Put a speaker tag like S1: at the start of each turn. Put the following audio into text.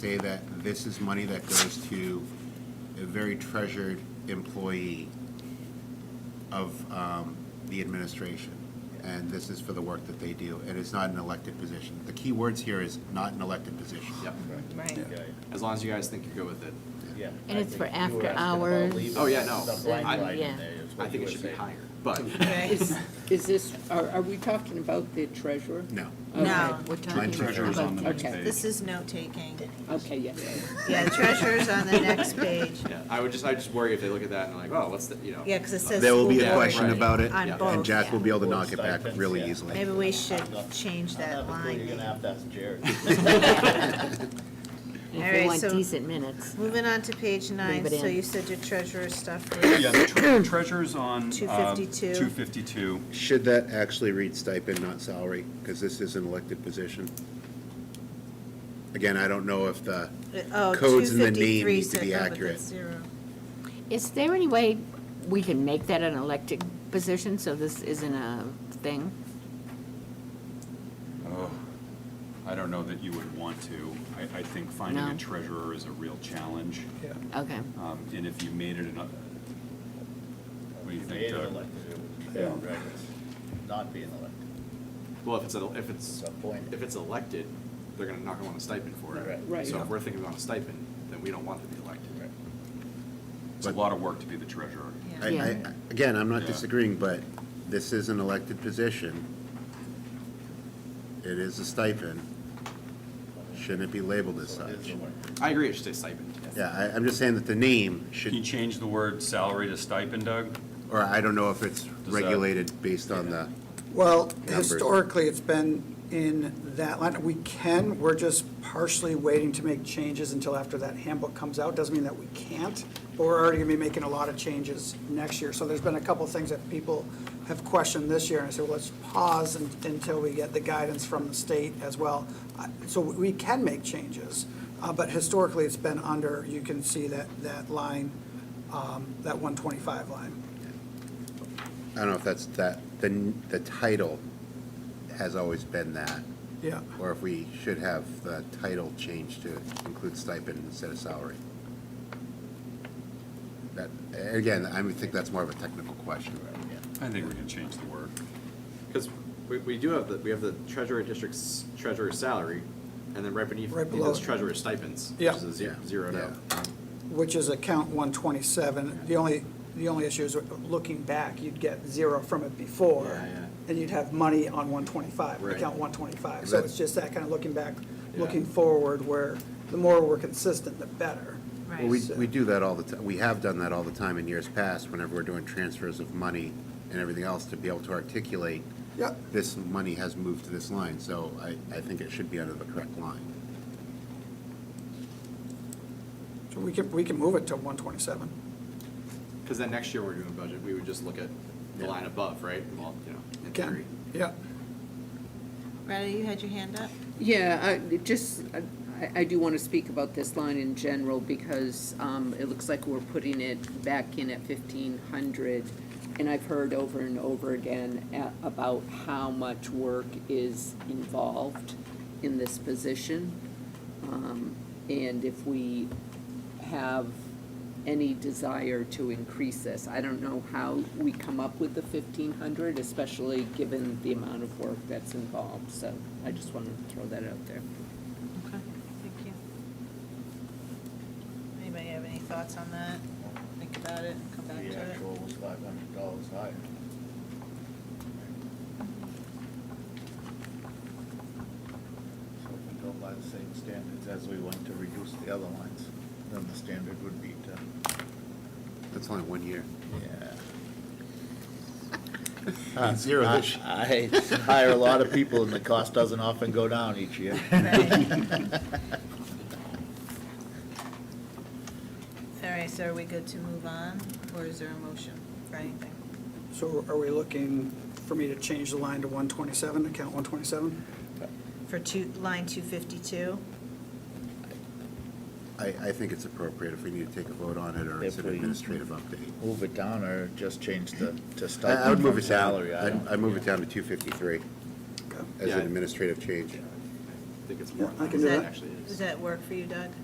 S1: say that this is money that goes to a very treasured employee of um, the administration, and this is for the work that they do, and it's not an elected position. The key words here is not an elected position.
S2: Yep.
S3: Right.
S2: Yeah,
S4: As long as you guys think you're good with it.
S2: yeah.
S5: And it's for
S2: I think you were
S5: after
S2: asking about
S5: hours.
S2: leaving
S4: Oh, yeah, no.
S2: The blank
S4: I-
S2: line
S5: yeah.
S2: in there is what
S4: I think
S2: you
S4: it
S2: were
S4: should be
S2: saying.
S4: higher, but
S3: Right.
S6: Is, is this, are, are we talking about the treasurer?
S1: No.
S6: Okay.
S3: No.
S5: We're
S1: Line
S5: talking
S1: treasure is on
S5: about
S1: the
S6: next
S5: budget.
S6: page.
S3: This is note-taking.
S6: Okay, yes,
S3: Yeah, treasurer's on the next page.
S4: yeah, I would just, I just worry if they look at that and like, oh, what's the, you know.
S3: Yeah, because it says.
S1: There will be
S3: school
S1: a
S3: board
S1: question
S4: right.
S1: about it,
S3: On
S4: Yeah.
S1: and
S3: both,
S1: Jack will
S3: yeah.
S1: be able to knock it back really
S2: Yeah.
S1: easily.
S3: Maybe we should change
S2: I have
S3: that
S2: a clue,
S3: line.
S2: You're gonna
S3: maybe.
S2: have to ask Jared.
S3: All
S5: If
S3: right,
S5: they want
S3: so-
S5: decent minutes.
S3: Moving on to page nine,
S5: Leave it
S3: so
S5: in.
S3: you said your treasurer stuff was,
S6: yes.
S3: all
S6: Yeah.
S7: Tre- Treasurer's on. um,
S3: 252.
S7: 252.
S1: Should that actually read stipend, not salary? Because this is an elected position. Again, I don't know if the
S3: oh,
S1: codes in the name
S3: 253
S1: need to
S3: said,
S1: be
S3: no, but
S1: accurate.
S3: that's zero.
S5: Is there any way we can make that an elected position, so this isn't a thing?
S7: Oh, I don't know that you would want to. I, I think finding
S5: No.
S7: a treasurer is a real challenge. Yeah.
S5: Okay.
S7: Um, and if you made it another, what do you think,
S2: Being
S7: Doug?
S2: elected, it would be bad, right? Not being elected.
S4: Well, if it's, a- if it's,
S2: Appointed.
S4: if it's elected, they're gonna knock them on a stipend for it.
S2: Right.
S6: Right.
S4: So if we're thinking about a stipend, then we don't want to be elected.
S7: It's a lot of work to be the treasurer.
S1: I,
S3: Yeah.
S1: I,
S5: Yeah.
S1: again, I'm not
S7: Yeah.
S1: disagreeing, but this is an elected position. It is a stipend. Shouldn't it be labeled as
S2: So it is
S1: such?
S2: the word.
S4: I agree, it should say stipend.
S1: Yeah, I, I'm just saying that the name
S7: Can
S1: should,
S7: you change the word salary to stipend, Doug?
S1: or I don't know if it's
S7: that-
S1: regulated based on the,
S8: Well,
S1: numbers.
S8: historically, it's been in that line. We can, we're just partially waiting to make changes until after that handbook comes out. Doesn't mean that we can't, but we're already gonna be making a lot of changes next year. So there's been a couple of things that people have questioned this year, and I said, well, let's pause un- until we get the guidance from the state as well. I- So we we can make changes, uh, but historically, it's been under, you can see that, that line, um, that 125 line.
S1: I don't know if that's that, the, n- the title has always been that.
S8: Yeah.
S1: Or if we should have the title changed to include stipend instead of salary. That, again, I would think that's more of a technical question.
S7: I think we can change the word.
S4: Because we, we do have the, we have the treasurer district's treasurer's salary, and then right beneath
S8: Right
S4: it
S8: below
S4: is
S8: it.
S4: treasurer's stipends, which
S8: Yeah.
S4: is a ze-
S1: Yeah.
S4: zeroed
S1: Yeah.
S4: out.
S8: which is account 127. The only, the only issue is looking back, you'd get zero from it before.
S4: Yeah, yeah.
S8: And you'd have money on 125,
S4: Right.
S8: account 125. So
S1: That's-
S8: it's just that kind of looking back,
S4: Yeah.
S8: looking forward, where the more we're consistent, the better.
S1: Well, we,
S3: Right.
S1: we do that all the time, we have done that all the time in years past, whenever we're doing transfers of money and everything else, to be able to articulate,
S8: Yep.
S1: this money has moved to this line, so I, I think it should be under the correct line.
S8: So we can, we can move it to 127.
S4: Because then next year when we're doing budget, we would just look at the
S1: Yeah.
S4: line above, right? Well, you know, in
S8: Can-
S4: theory.
S8: Yep.
S3: Rheta, you had your hand up?
S6: Yeah, I, it just, I, I do want to speak about this line in general because, um, it looks like we're putting it back in at fifteen hundred. And I've heard over and over again a- about how much work is involved in this position. Um, and if we have any desire to increase this, I don't know how we come up with the fifteen hundred, especially given the amount of work that's involved, so I just wanted to throw that out there.
S3: Okay, thank you. Anybody have any thoughts on that? Think about it, come back to
S2: The
S3: it?
S2: actual was five hundred dollars higher. So if we go by the same standards as we went to reduce the other lines, then the standard would be to,
S1: That's only one year.
S2: yeah.
S1: Zero this year.
S2: Uh, I I hire a lot of people and the cost doesn't often go down each year.
S3: Right. All right, so are we good to move on, or is there a motion for anything?
S8: So are we looking for me to change the line to 127, account 127?
S3: For two, line 252?
S1: I, I think it's appropriate if we need to take a vote on it, or it's
S2: If
S1: an
S2: we-
S1: administrative update.
S2: Move it down or just change the, to
S1: I,
S2: stipend
S1: I would move
S2: from
S1: it down,
S2: salary. I don't-
S1: I, I move it down to two fifty-three
S8: Okay.
S1: as
S4: Yeah.
S1: an administrative change.
S4: I think it's
S8: Yeah,
S4: more
S8: I
S4: than
S8: can
S4: what
S8: do
S4: it
S8: that.
S4: actually is.
S3: Does that work for you, Doug?